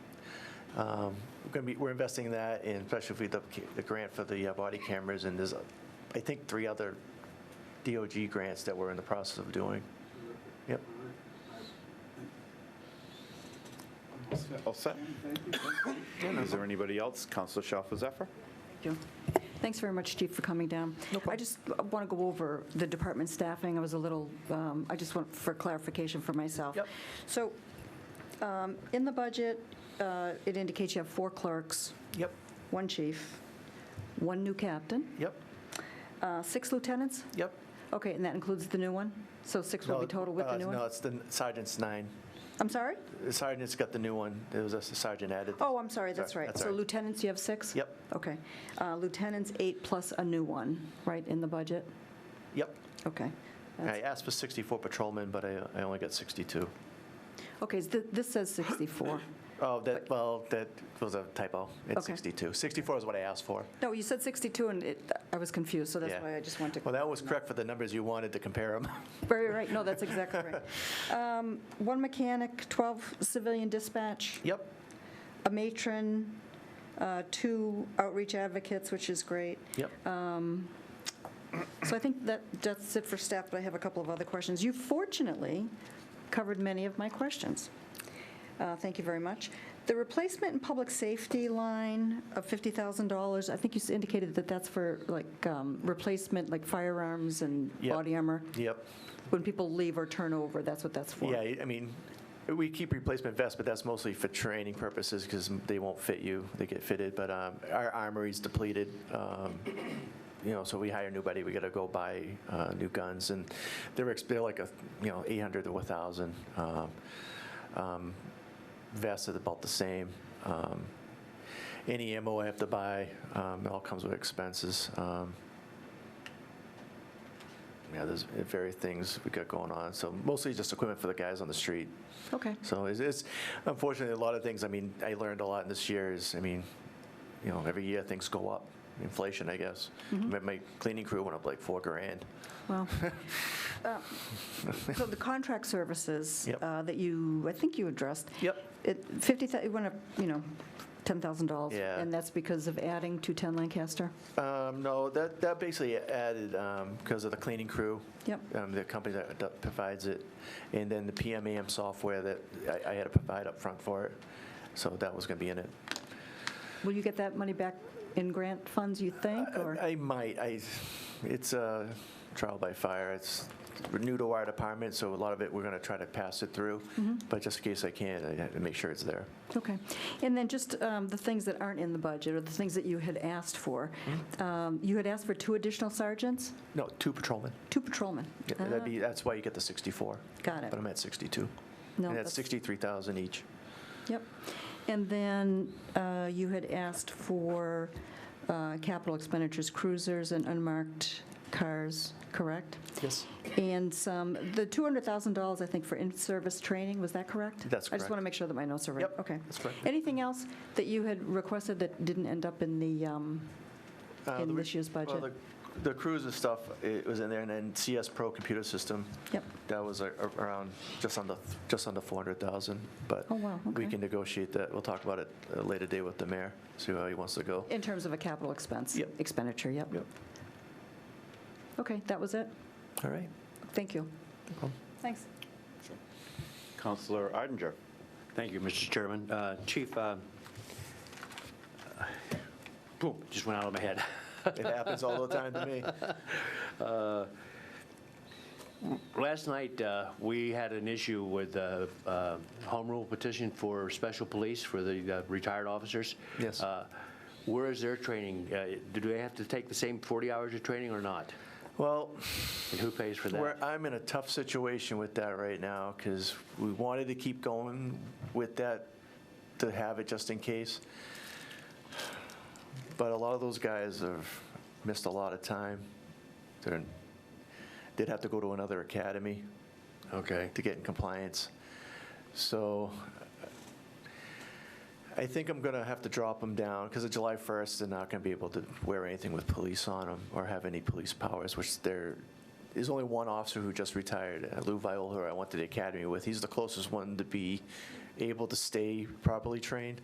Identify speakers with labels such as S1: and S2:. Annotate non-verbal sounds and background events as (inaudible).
S1: Um, We're going to be, we're investing in that, and especially if we, the the grant for the uh, body cameras, and there's, uh, I think, three other DOG grants that we're in the process of doing. Yep.
S2: All set? Is there anybody else? Counselor Shalfo Zephyr?
S3: Thank you. Thanks very much, Chief, for coming down. I just want to go over the department staffing. I was a little, um, I just want for clarification for myself.
S1: Yep.
S3: So um, in the budget, uh, it indicates you have four clerks,
S1: Yep,
S3: one chief, one new captain,
S1: yep,
S3: uh, six lieutenants?
S1: yep.
S3: Okay, and that includes the new one? So six will be total with the new
S1: No,
S3: one?
S1: it's the sergeant's nine.
S3: I'm sorry?
S1: The sergeant's got the new one. There was a sergeant added.
S3: Oh, I'm sorry, that's
S1: Sorry,
S3: right.
S1: that's
S3: So
S1: all right.
S3: lieutenants, you have six?
S1: Yep.
S3: Okay. Uh, Lieutenants, eight plus a new one, right, in the budget?
S1: Yep.
S3: Okay.
S1: I asked for 64 patrolmen, but I I only got 62.
S3: Okay, so th- this says 64.
S1: (coughs) Oh, that, well, that was a typo. It's
S3: Okay.
S1: 62. 64 is what I asked for.
S3: No, you said 62, and it- I was confused, so that's
S1: Yeah.
S3: why I just wanted
S1: Well,
S3: to...
S1: that was correct for the numbers you wanted to compare
S3: (laughs)
S1: them.
S3: Very right, no, that's exactly right.
S1: (laughs)
S3: Um, One mechanic, 12 civilian dispatch,
S1: Yep,
S3: a matron, uh, two outreach advocates, which is great.
S1: yep.
S3: Uh. So I think that, that's it for staff, but I have a couple of other questions. You fortunately covered many of my questions. Uh, Thank you very much. The replacement and public safety line of $50,000, I think you s- indicated that that's for like um, replacement, like firearms and
S1: Yep.
S3: body armor.
S1: Yep.
S3: When people leave or turn over, that's what that's for.
S1: Yeah, I mean, we keep replacement vests, but that's mostly for training purposes because they won't fit you. They get fitted, but um, our armory's depleted. um, You know, so we hire nobody, we got to go buy uh, new guns and they're, ex- they're like a, you know, 800 to 1,000. um, um, Vests are about the same. Um, Any ammo I have to buy, um, it all comes with expenses. Um, Yeah, there's various things we got going on. So mostly just equipment for the guys on the street.
S3: Okay,
S1: So it's, it's unfortunately a lot of things. I mean, I learned a lot in this year. Is I mean, you know, every year things go up. Inflation, I guess. My, my cleaning crew went up like four grand.
S3: well. uh, So the contract services
S1: Yep.
S3: uh, that you, I think you addressed,
S1: Yep.
S3: It, 50, it went up, you know, $10,000.
S1: Yeah.
S3: And that's because of adding to 10 Lancaster?
S1: Um, no, that that basically added because of the cleaning crew.
S3: Yep.
S1: um, the company that d- provides it, and then the PMAM software that I, I had to provide up front for it. So that was going to be in it.
S3: Will you get that money back in grant funds, you think, or?
S1: I I might. I, it's a trial by fire. It's we're new to our department, so a lot of it, we're going to try to pass it through. But just in case I can, I have to make sure it's there.
S3: Mm-hmm. Okay. And then just um, the things that aren't in the budget, or the things that you had asked for.
S1: Mm-hmm.
S3: Um, You had asked for two additional sergeants,
S1: No, two patrolmen.
S3: two patrolmen.
S1: Yeah,
S3: Ah,
S1: That'd be, that's why you get the 64.
S3: Got it.
S1: But I'm at 62.
S3: No,
S1: And that's
S3: that's-
S1: 63,000 each.
S3: Yep. And then uh, you had asked for uh, capital expenditures, cruisers and unmarked cars, correct?
S1: Yes.
S3: And some, the $200,000, I think, for in-service training, was that correct?
S1: That's
S3: I just want to
S1: correct.
S3: make sure that my notes are right.
S1: Yep,
S3: Okay.
S1: that's correct.
S3: Anything else that you had requested that didn't end up in the, um,
S1: Uh,
S3: in
S1: the re-
S3: this year's
S1: well,
S3: budget?
S1: the- The cruiser stuff, it was in there, and then CS Pro computer system.
S3: Yep.
S1: That was a- a- around, just under, just under 400,000, but.
S3: Oh, wow,
S1: We
S3: okay.
S1: can negotiate that. We'll talk about it at a later day with the mayor, see how he wants to go.
S3: In terms of a capital expense?
S1: Yep.
S3: Expenditure, yep.
S1: Yep,
S3: Okay, that was it?
S1: all right.
S3: Thank you. Thanks.
S2: Counselor Arndinger.
S4: Thank you, Mr. Chairman. Uh, Chief, uh, boom, just went out of my head.
S1: It happens all the time to me.
S4: Last night, uh, we had an issue with uh, uh, home rule petition for special police for the uh, retired officers.
S1: Yes.
S4: Uh, Where is their training? Uh, Do they have to take the same 40 hours of training or not?
S1: Well,
S4: And who pays for
S1: Where
S4: that?
S1: I'm in a tough situation with that right now, because we wanted to keep going with that, to have it just in case. But a lot of those guys have missed a lot of time. They're, they'd have to go to another academy
S4: Okay.
S1: to get in compliance. So I think I'm going to have to drop them down because of July 1st, they're not going to be able to wear anything with police on them or have any police powers, which there is only one officer who just retired, uh, Lou Viola, who I went to the academy with. He's the closest one to be able to stay properly trained.